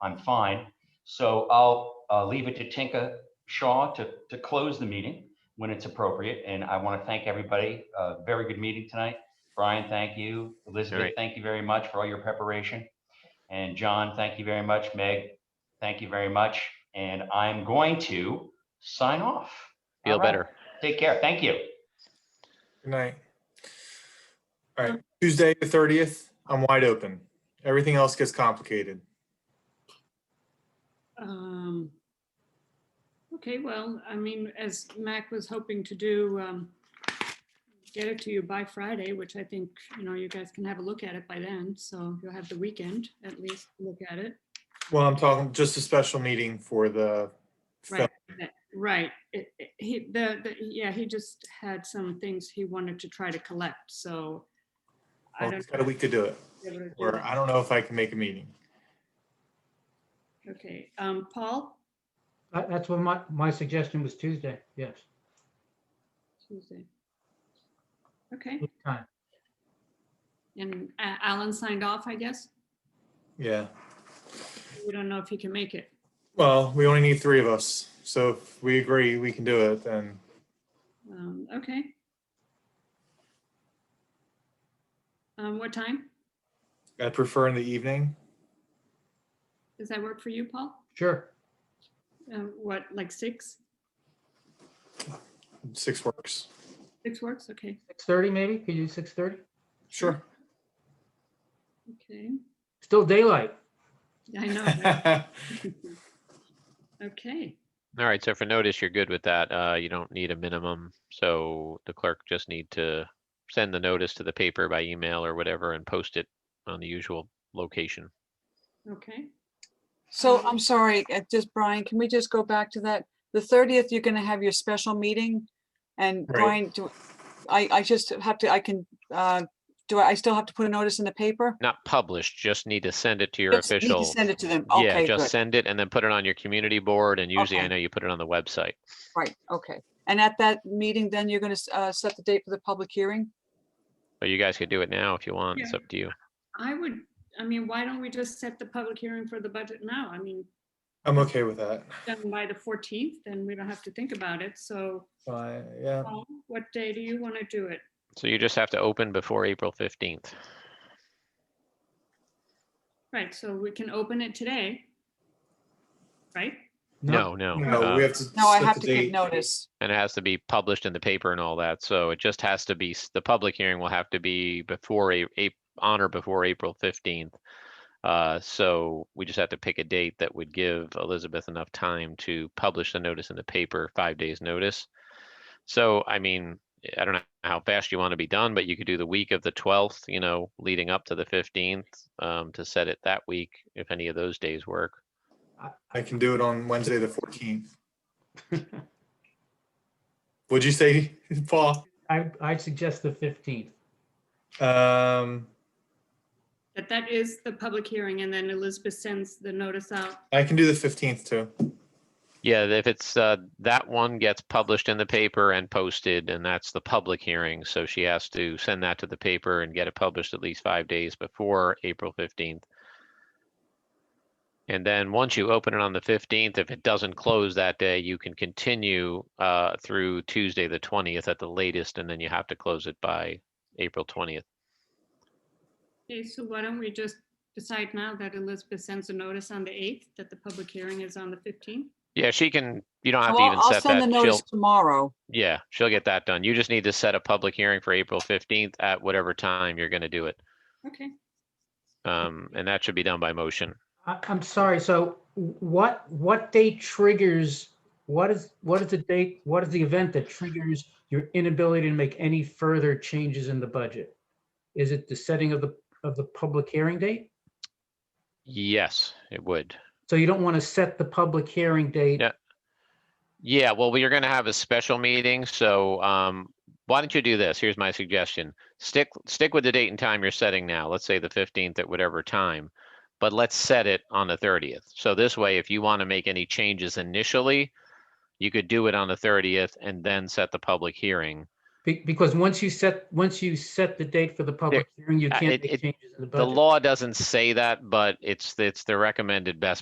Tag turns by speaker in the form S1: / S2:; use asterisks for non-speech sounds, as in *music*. S1: I'm fine. So I'll uh, leave it to Tinka Shaw to, to close the meeting when it's appropriate. And I want to thank everybody. Uh, Very good meeting tonight. Brian, thank you. Elizabeth,
S2: Great.
S1: thank you very much for all your preparation. And John, thank you very much. Meg, thank you very much. And I'm going to sign off.
S2: Feel
S1: All right.
S2: better.
S1: Take care. Thank you.
S3: Good night. All right, Tuesday, the thirtieth, I'm wide open. Everything else gets complicated.
S4: Um, Okay, well, I mean, as Mac was hoping to do, um, get it to you by Friday, which I think, you know, you guys can have a look at it by then. So you'll have the weekend at least to look at it.
S3: Well, I'm talking just a special meeting for the film.
S4: Right. That- Right. It- it- He, the, the, yeah, he just had some things he wanted to try to collect, so. I
S3: Well,
S4: don't.
S3: It's got a week uh, to do it,
S4: know if
S3: or
S4: we're able to
S3: I don't know if I can make a meeting.
S4: do- Okay, um, Paul,
S5: That, that's what my, my suggestion was Tuesday, yes.
S4: Tuesday. Okay,
S5: What time?
S4: and A- Alan signed off, I guess.
S3: Yeah,
S4: We don't know if he can make it.
S3: well, we only need three of us, so if we agree we can do it, then
S4: Um, okay. Um, what time?
S3: I prefer in the evening.
S4: Does that work for you, Paul?
S5: Sure,
S4: Um, what, like six?
S3: Six works.
S4: Six works? Okay,
S5: six thirty maybe, could you do six thirty?
S3: Sure.
S4: okay.
S5: Still daylight,
S4: I know.
S3: *laughs*
S4: right?
S3: All
S4: Okay,
S2: All right, so for notice, you're good with that. Uh, you don't need a minimum, so the clerk just need to send the notice to the paper by email or whatever and post it on the usual location.
S4: okay.
S6: So
S4: Um,
S2: Uh-huh.
S6: I'm sorry, uh, just Brian, can we just go back to that? The thirtieth, you're gonna have your special meeting? And
S3: Right.
S6: Brian, do, I, I just have to, I can, uh, do I, I still have to put a notice in the paper?
S2: Not published, just need to send it to your
S6: Just need to
S2: official.
S6: Send it to them.
S2: Yeah,
S6: Okay,
S2: just
S6: good.
S2: send it and then put it on your community board and usually I
S6: Okay.
S2: know you put it on the website.
S6: Right, okay. And at that meeting, then you're gonna, s- uh, set the date for the public hearing?
S2: But you guys could do it now if you want. It's
S4: Yeah.
S2: up to you.
S4: I would, I mean, why don't we just set the public hearing for the budget now? I mean,
S3: I'm okay with that.
S4: done by the fourteenth, then we don't have to think about it. So
S3: Fine, yeah,
S4: Paul, what day do you want to do it?
S2: So you just have to open before April fifteenth.
S4: Right, so we can open it today. Right?
S2: No, no.
S3: no,
S2: uh,
S3: we have to.
S6: No, I
S3: set
S6: have
S3: the
S6: to give
S3: date.
S6: notice.
S2: And it has to be published in the paper and all that. So it just has to be, s- the public hearing will have to be before a, a, on or before April fifteenth. Uh, so we just have to pick a date that would give Elizabeth enough time to publish the notice in the paper, five days notice. So, I mean, I don't know how fast you want to be done, but you could do the week of the twelfth, you know, leading up to the fifteenth, um, to set it that week, if any of those days work.
S3: I can do it on Wednesday, the fourteenth. Would you say, Paul?
S5: I, I'd suggest the fifteenth.
S3: Um,
S4: But that is the public hearing and then Elizabeth sends the notice out.
S3: I can do the fifteenth too.
S2: Yeah, if it's, uh, that one gets published in the paper and posted, and that's the public hearing, so she has to send that to the paper and get it published at least five days before April fifteenth. And then, once you open it on the fifteenth, if it doesn't close that day, you can continue, uh, through Tuesday, the twentieth at the latest, and then you have to close it by April twentieth.
S4: Okay, so why don't we just decide now that Elizabeth sends a notice on the 8th, that the public hearing is on the 15th?
S2: Yeah, she can, you don't have
S6: Well,
S2: to even
S6: I'll
S2: set
S6: send the
S2: that, she'll,
S6: notice tomorrow.
S2: yeah, she'll get that done. You just need to set a public hearing for April fifteenth at whatever time you're gonna do it.
S4: Okay,
S2: Um, and that should be done by motion.
S5: I, I'm sorry, so what, what date triggers, what is, what is the date, what is the event that triggers your inability to make any further changes in the budget? Is it the setting of the, of the public hearing date?
S2: Yes, it would.
S5: So you don't want to set the public hearing date?
S2: Yeah. Yeah, well, we are gonna have a special meeting, so, um, why don't you do this? Here's my suggestion. Stick, stick with the date and time you're setting now. Let's say the fifteenth at whatever time. But let's set it on the thirtieth. So this way, if you want to make any changes initially, you could do it on the thirtieth and then set the public hearing.
S5: Be- Because once you set, once you set the date for the public hearing, you
S2: uh,
S5: can't
S2: it-
S5: make
S2: it-
S5: changes in the
S2: The
S5: budget.
S2: law doesn't say that, but it's, it's the recommended best